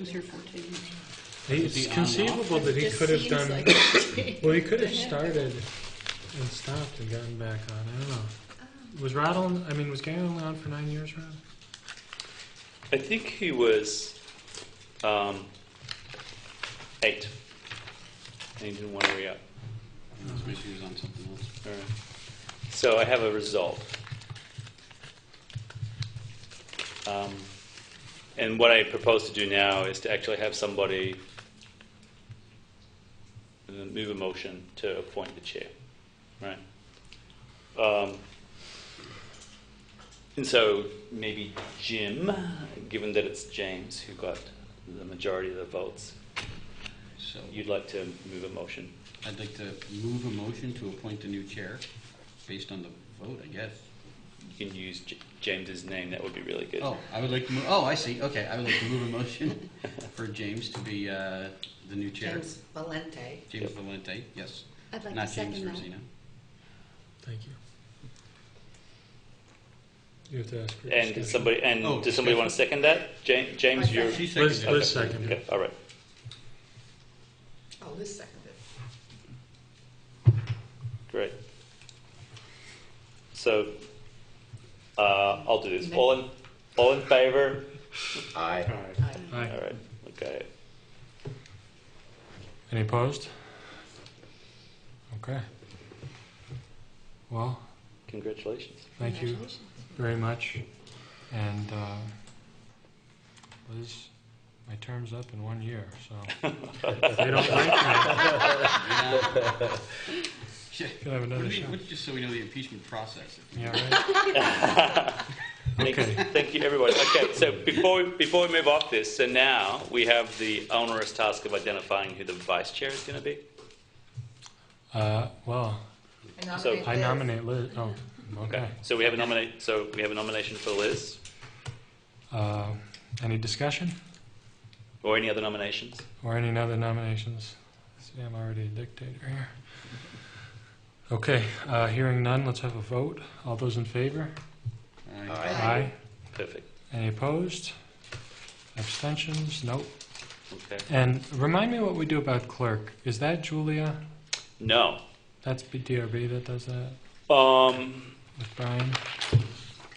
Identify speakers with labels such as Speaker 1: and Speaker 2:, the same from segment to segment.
Speaker 1: He's here 14 years.
Speaker 2: It's
Speaker 3: on and off?
Speaker 2: conceivable that he
Speaker 1: Just
Speaker 2: could have
Speaker 1: seems
Speaker 2: done,
Speaker 1: like it.
Speaker 2: well, he could have
Speaker 1: Yeah.
Speaker 2: started and stopped and gotten back on. I don't know. Was Rod on, I mean, was Gary only on for nine years, Rod?
Speaker 3: I think he was um, eight. And he didn't want to re up.
Speaker 4: Maybe he was on something else.
Speaker 3: All right. So I have a result. Um, and what I propose to do now is to actually have somebody uh, move a motion to appoint the chair, right? Um, and so maybe Jim, given that it's James who got the majority of the votes,
Speaker 4: So
Speaker 3: you'd like to move a motion.
Speaker 4: I'd like to move a motion to appoint a new chair, based on the vote, I guess.
Speaker 3: You can use J- James's name, that would be really good.
Speaker 4: Oh, I would like to move, oh, I see, okay, I would like to move a motion for James to be uh, the new chair.
Speaker 5: James Valente.
Speaker 4: James Valente, yes.
Speaker 6: I'd like to
Speaker 4: Not James
Speaker 6: second that.
Speaker 4: Rosino.
Speaker 2: Thank you. You have to ask for
Speaker 3: And
Speaker 2: discussion.
Speaker 3: did somebody, and
Speaker 4: Oh,
Speaker 3: does somebody want to second that? James, James, you're.
Speaker 4: She
Speaker 2: Liz-
Speaker 4: seconded
Speaker 2: Liz
Speaker 4: it.
Speaker 2: seconded.
Speaker 3: Okay, all right.
Speaker 5: Oh, Liz seconded.
Speaker 3: Great. So, uh, I'll do this. All in, all in favor?
Speaker 7: Aye.
Speaker 5: Aye.
Speaker 3: All
Speaker 2: Aye.
Speaker 3: right. Okay.
Speaker 2: Any opposed? Okay. Well,
Speaker 3: Congratulations.
Speaker 2: thank you
Speaker 6: Congratulations.
Speaker 2: very much. And uh, Liz, my term's up in one year, so if they don't like me,
Speaker 4: Yeah.
Speaker 2: can I have
Speaker 4: What
Speaker 2: another
Speaker 4: do you-
Speaker 2: shot?
Speaker 4: what- Just so we know the impeachment process. if we-
Speaker 2: Yeah, right.
Speaker 3: Thank-
Speaker 2: Okay.
Speaker 3: Thank you, everyone. Okay, so before, we- before we move off this, so now we have the onerous task of identifying who the vice chair is going to be.
Speaker 2: Uh, well,
Speaker 3: So-
Speaker 2: I
Speaker 5: Liz.
Speaker 2: nominate Liz. Oh, okay.
Speaker 3: So we have a nominate, so we have a nomination for Liz,
Speaker 2: Uh, any discussion
Speaker 3: or any other nominations?
Speaker 2: or any other nominations? See, I'm already a dictator here. Okay, uh, hearing none, let's have a vote. All those in favor?
Speaker 4: Aye.
Speaker 7: Aye.
Speaker 2: Aye.
Speaker 3: Perfect.
Speaker 2: Any opposed? Abstentions? Nope.
Speaker 3: Okay.
Speaker 2: And remind me what we do about clerk. Is that Julia?
Speaker 3: No.
Speaker 2: That's DRB that does that
Speaker 3: Um,
Speaker 2: with Brian?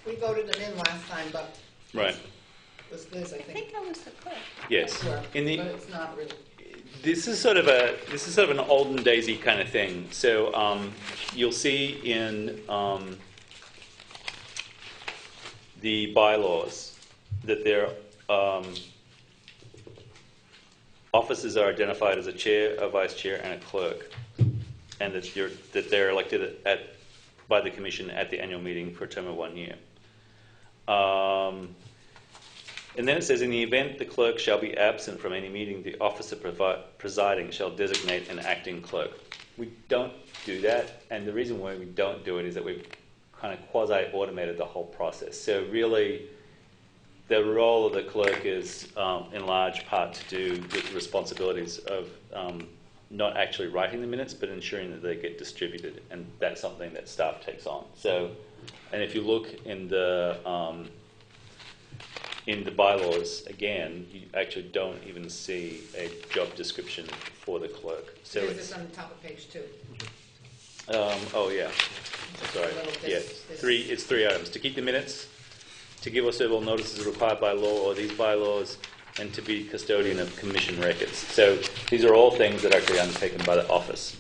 Speaker 5: We voted it in last time, but
Speaker 3: right.
Speaker 5: it was Liz, I
Speaker 1: I
Speaker 5: think.
Speaker 1: think I was the clerk.
Speaker 3: Yes.
Speaker 5: Sure, But
Speaker 3: In the,
Speaker 5: it's not really.
Speaker 3: this is sort of a this is sort of an olden daisy kind of thing. So um, you'll see in um, the bylaws that their um, offices are identified as a chair, a vice chair, and a clerk, and that you're that they're elected at by the commission at the annual meeting for a term of one year. Um, and then it says, in the event the clerk shall be absent from any meeting, the officer provi- presiding shall designate an acting clerk. We don't do that, and the reason why we don't do it is that we've kind of quasi-automated the whole process. So really, the role of the clerk is um, in large part to do with the responsibilities of um, not actually writing the minutes, but ensuring that they get distributed, and that's something that staff takes on. So, and if you look in the um, in the bylaws, again, you actually don't even see a job description for the clerk. So
Speaker 5: Liz
Speaker 3: it's,
Speaker 5: is on the top of page two.
Speaker 3: um, oh yeah,
Speaker 5: Just a
Speaker 3: sorry,
Speaker 5: little
Speaker 3: yeah,
Speaker 5: this- this-
Speaker 3: three, it's three items, to keep the minutes, to give or serve all notices required by law or these bylaws, and to be custodian of commission records. So these are all things that are actually undertaken by the office,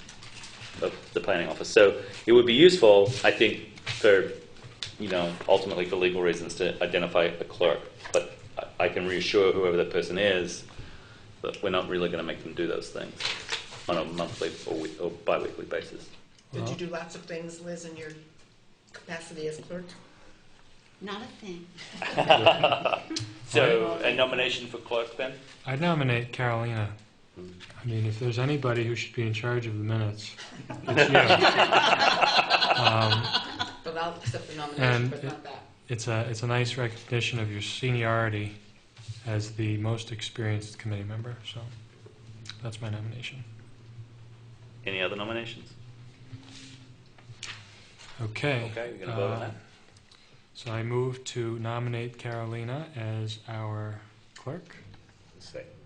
Speaker 3: of the planning office. So it would be useful, I think, for, you know, ultimately for legal reasons to identify a clerk. But I- I can reassure whoever that person is, that we're not really gonna make them do those things on a monthly or we- or bi-weekly basis.
Speaker 5: Did you do lots of things, Liz, in your capacity as clerk?
Speaker 6: Not a thing.
Speaker 3: So a nomination for clerk then?
Speaker 2: I nominate Carolina. I mean, if there's anybody who should be in charge of the minutes, it's you. Um,
Speaker 5: But I'll accept the
Speaker 2: And
Speaker 5: nomination, but
Speaker 2: it-
Speaker 5: not that.
Speaker 2: It's a, it's a nice recognition of your seniority as the most experienced committee member, so that's my nomination.
Speaker 3: Any other nominations?
Speaker 2: Okay.
Speaker 3: Okay, we're gonna vote on
Speaker 2: uh,
Speaker 3: that.
Speaker 2: So I move to nominate Carolina as our clerk.
Speaker 7: say.